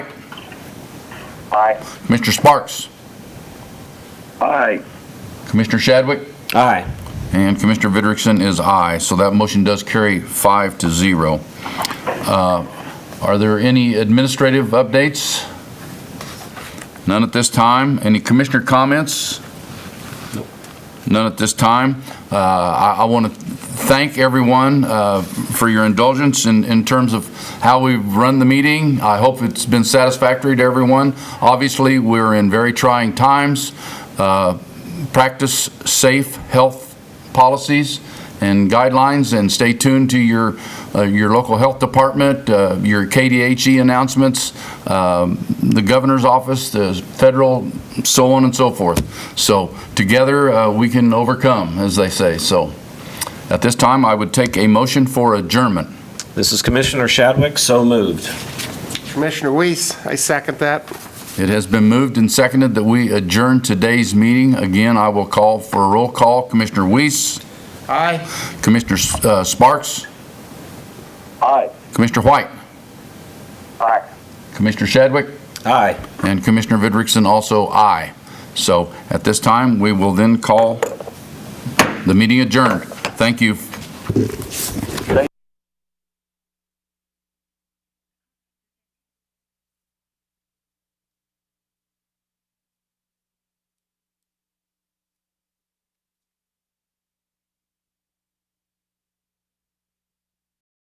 Aye. Mr. Sparks, Aye. Commissioner Shadwick, Aye. and Commissioner Vidrickson is aye. So that motion does carry five to zero. Uh, Are there any administrative updates? None at this time. Any commissioner comments? None at this time. Uh, I, I want to thank everyone uh, for your indulgence in, in terms of how we've run the meeting. I hope it's been satisfactory to everyone. Obviously, we're in very trying times. Uh, Practice safe health policies and guidelines, and stay tuned to your, uh, your local health department, uh, your KDHE announcements, um, the governor's office, the federal, so on and so forth. So together, uh, we can overcome, as they say. So at this time, I would take a motion for adjournment. This is Commissioner Shadwick, so moved. Commissioner Weiss, I second that. It has been moved and seconded that we adjourn today's meeting. Again, I will call for a roll call. Commissioner Weiss, Aye. Commissioner uh, Sparks, Aye. Commissioner White, Aye. Commissioner Shadwick, Aye. And Commissioner Vidrickson also aye. So at this time, we will then call the meeting adjourned. Thank you.